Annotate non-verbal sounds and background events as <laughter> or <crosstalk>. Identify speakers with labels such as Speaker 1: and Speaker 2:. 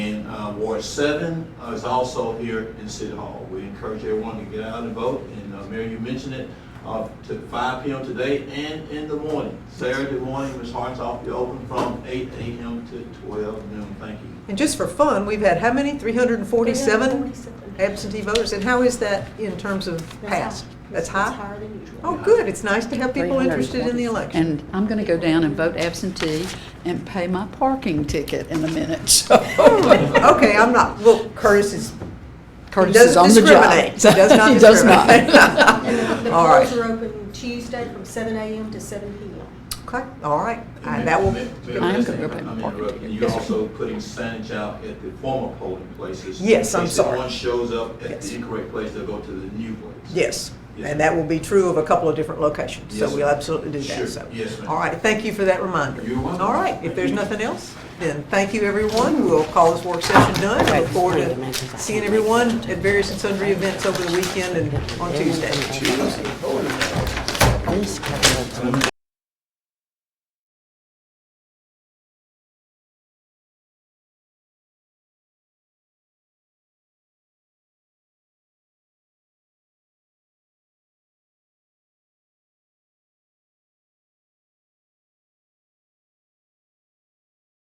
Speaker 1: uh, Ward Seven uh, is also here in City Hall. We encourage everyone to get out and vote, and uh, Mayor, you mentioned it, uh, to five P M today and in the morning. Saturday morning, Ms. Hart's office will be open from eight A M to twelve noon. Thank you.
Speaker 2: And just for fun, we've had how many? 347
Speaker 3: 47.
Speaker 2: absentee voters? And how is that in terms of
Speaker 3: That's
Speaker 2: past?
Speaker 3: high.
Speaker 2: That's
Speaker 3: It's
Speaker 2: high?
Speaker 3: higher than usual.
Speaker 2: Oh, good, it's nice to have people interested in the election.
Speaker 4: And I'm going to go down and vote absentee and pay my parking ticket in a minute, <laughs> so.
Speaker 2: Okay, I'm not, well, Curtis is, he
Speaker 4: Curtis is on
Speaker 2: doesn't
Speaker 4: the job.
Speaker 2: discriminate. He does not
Speaker 4: <laughs> He does not.
Speaker 3: And the- the
Speaker 2: discriminate. <laughs> All
Speaker 3: polls
Speaker 2: right,
Speaker 3: are open Tuesday from seven AM to seven PM.
Speaker 2: okay, all right. And that will,
Speaker 4: I am gonna go pay my parking ticket.
Speaker 1: You're also putting signage out at the former polling places.
Speaker 2: Yes, I'm
Speaker 1: In case
Speaker 2: sorry.
Speaker 1: If one shows up at
Speaker 2: Yes.
Speaker 1: the incorrect place, they'll go to the new place.
Speaker 2: yes, and that will be true of a couple of different locations. So
Speaker 1: Yes,
Speaker 2: we'll
Speaker 1: ma'am.
Speaker 2: absolutely do
Speaker 1: Sure.
Speaker 2: that, so.
Speaker 1: Yes, ma'am.
Speaker 2: All right, thank you for that reminder.
Speaker 1: You're welcome.
Speaker 2: All right, if
Speaker 1: Thank
Speaker 2: there's
Speaker 1: you.
Speaker 2: nothing else, then thank you, everyone. We'll call this work session done. I look forward to seeing everyone at various and sundry events over the weekend and on Tuesday.